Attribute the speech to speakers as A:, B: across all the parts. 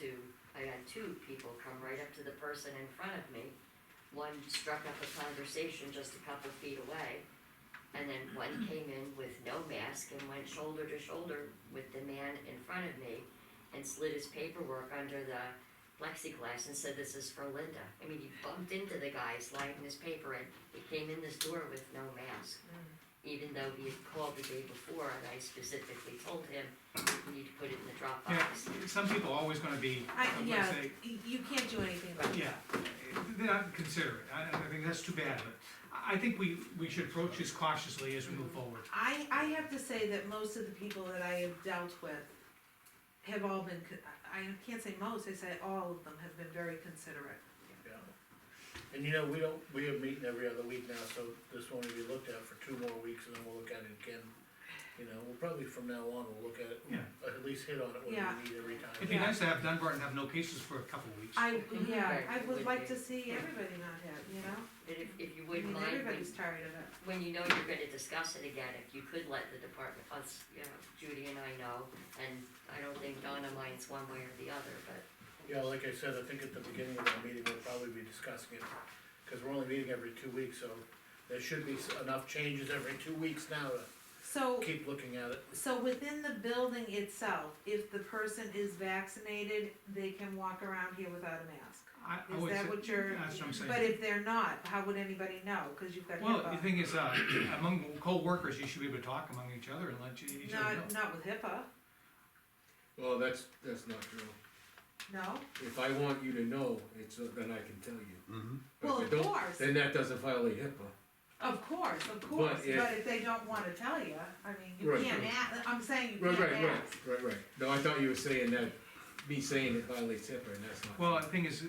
A: to, I had two people come right up to the person in front of me. One struck up a conversation just a couple feet away, and then one came in with no mask and went shoulder to shoulder with the man in front of me and slid his paperwork under the plexiglass and said, this is for Linda. I mean, he bumped into the guy sliding his paper in, he came in this door with no mask. Even though he had called the day before and I specifically told him, you need to put it in the Dropbox.
B: Yeah, some people are always gonna be,
C: I,
B: I'm gonna
C: yeah,
B: say,
C: y- you can't do anything about it.
B: yeah, they're not considerate, I, I think that's too bad, but I, I think we, we should approach this cautiously as we move forward.
C: I, I have to say that most of the people that I have dealt with have all been, co- I I can't say most, I say all of them have been very considerate.
D: Yeah. And you know, we don't, we have meeting every other week now, so this one will be looked at for two more weeks and then we'll look at it again. You know, we'll probably from now on, we'll look at it,
B: Yeah.
D: uh, at least hit on it when
C: Yeah.
D: we need every
B: It'd be
D: time.
C: Yeah.
B: nice to have Dunbar and have no cases for a couple of weeks.
C: I, yeah,
A: Right,
C: I
A: it would
C: would like
A: be.
C: to see everybody not hit, you know?
A: And if, if you
C: I
A: wouldn't
C: mean,
A: mind, when,
C: everybody's tired of it.
A: when you know you're gonna discuss it again, if you could let the department, us, you know, Judy and I know, and I don't think Donna minds one way or the other, but.
D: Yeah, like I said, I think at the beginning of our meeting, we'll probably be discussing it, cause we're only meeting every two weeks, so there should be s- enough changes every two weeks now to
C: So,
D: keep looking at it.
C: so within the building itself, if the person is vaccinated, they can walk around here without a mask?
B: I- I
C: Is
B: would
C: that
B: say-
C: what you're-
B: That's what I'm saying.
C: But if they're not, how would anybody know? Cause you've got
B: Well, the
C: HIPAA.
B: thing is, uh, among co-workers, you should be able to talk among each other and let you- each other know.
C: Not, not with HIPAA,
E: Well, that's, that's not true.
C: no?
E: If I want you to know, it's, uh, then I can tell you. But if
C: Well,
E: I
C: of
E: don't,
C: course,
E: Then that doesn't violate HIPAA.
C: of course, of course,
E: if-
C: but if they don't wanna tell you, I mean, you
E: Right,
C: can't
E: right.
C: ask, I'm saying you
E: Right,
C: can't
E: right, right,
C: ask.
E: right, right. No, I thought you were saying that, me saying it violates HIPAA, and that's not.
B: Well, the thing is,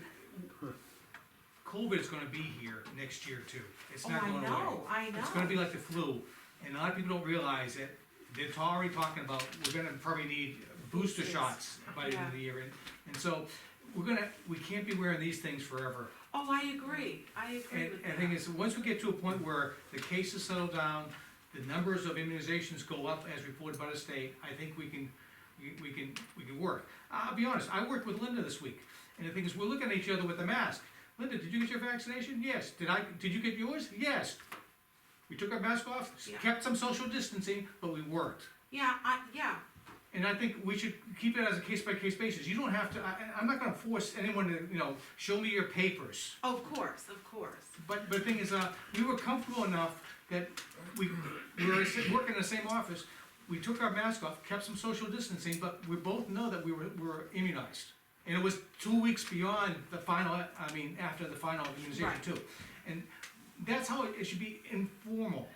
B: COVID is gonna be here next year too. It's
C: Oh,
B: not
C: I
B: going away.
C: know, I
B: It's gonna
C: know,
B: be like the flu, and a lot of people don't realize it. They're already talking about, we're gonna probably need booster
C: Boosters.
B: shots by the end of the year. And- And so, we're gonna, we can't be wearing these things forever.
C: oh, I agree, I agree
B: And,
C: with
B: and
C: that.
B: the thing is, once we get to a point where the cases settle down, the numbers of immunizations go up as reported by the state, I think we can, we- we can, we can work. I'll be honest, I worked with Linda this week, and the thing is, we're looking at each other with a mask. Linda, did you get your vaccination? Yes. Did I, did you get yours? Yes. We took our mask off, s-
C: Yeah.
B: kept some social distancing, but we worked.
C: Yeah, I, yeah,
B: And I think we should keep it as a case by case basis. You don't have to, I, I'm not gonna force anyone to, you know, show me your papers.
C: of course, of course.
B: But, but the thing is, uh, we were comfortable enough that we, we were sit- working in the same office, we took our mask off, kept some social distancing, but we both know that we were, were immunized. And it was two weeks beyond the final, I mean, after the final immunization
C: Right.
B: too. And that's how it, it should be informal.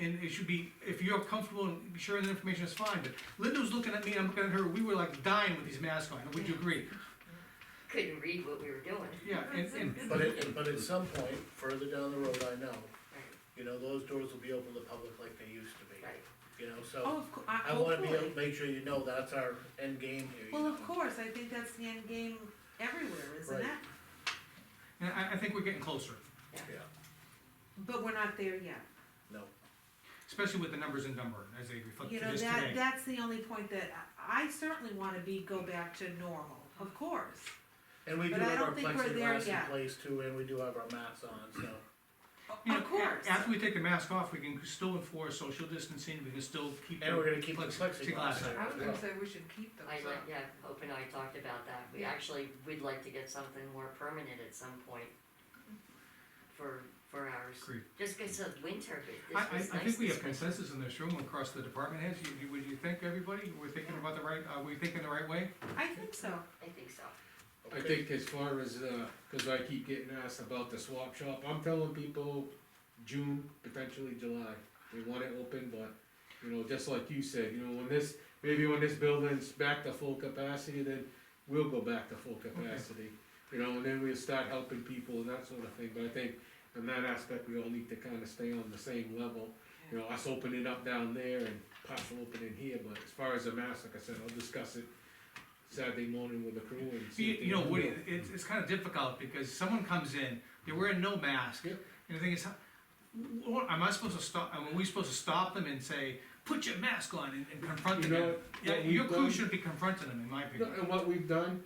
B: And it should be, if you're comfortable in sharing the information, it's fine, but Linda was looking at me, I'm looking at her, we were like dying with these masks on, would you agree?
A: couldn't read what we were doing.
B: Yeah, and, and,
D: But it, but at some point, further down the road, I know,
A: Right,
D: you know, those doors will be open to the public like they used to be,
A: right.
D: you know, so.
C: Oh, of cou- I,
D: I wanna be able
C: hopefully,
D: to make sure you know that's our end game here. you
C: well, of
D: know.
C: course, I think that's the end game everywhere, isn't
D: Right.
C: it?
B: and I, I think we're getting closer,
D: Yeah,
C: But we're not there yet.
D: no,
B: especially with the numbers in Dunbar, as they reflect
C: You
B: to
C: know,
B: this today.
C: that, that's the only point that, I I certainly wanna be, go back to normal, of course.
D: and we do
C: But I
D: have our
C: don't think we're there
D: plexiglass
C: yet.
D: in place too, and we do have our mats on, so.
B: You know,
C: Of course.
B: a- After we take the mask off, we can still enforce social distancing, we can still keep.
D: And
B: the
D: we're gonna keep the
B: plexiglass.
D: plexiglass there
F: I was
D: as
F: gonna
D: well.
F: say we should keep those
A: I,
F: up.
A: yeah, Hope and I talked about that, we actually would like to get something more permanent at some point for, for ours.
B: Agreed.
A: Just because of winter,
B: I,
A: but
B: I,
A: this was nice.
B: I think we
A: this
B: have
A: winter.
B: consensus in this room across the department heads, you, you, would you think, everybody, we're thinking about the right, are we thinking the right way?
C: I think so.
A: I think so.
E: I
D: Okay.
E: think as far as, uh 'cause cause I keep getting asked about the swap shop, I'm telling people June, potentially July. They want it open, but, you know, just like you said, you know, when this, maybe when this building's back to full capacity, then we'll go back to full capacity. You know, and then we'll start helping people and that sort of thing, but I think in that aspect, we all need to kinda stay on the same level. You know, us opening up down there and possible opening here, but as far as the mask, like I said, I'll discuss it Saturday morning with the crew and
B: You,
E: see if they.
B: you know,
E: do
B: Woody,
E: it.
B: it's, it's kinda difficult, because someone comes in, they're wearing no mask,
E: Yep.
B: and the thing is, how- wh- am I supposed to stop, are we supposed to stop them and say, put your mask on and and confront
E: You
B: them?
E: know,
B: Yeah,
E: what we've
B: your crew
E: done-
B: should be confronting them, in my
E: No,
B: opinion.
E: and what we've done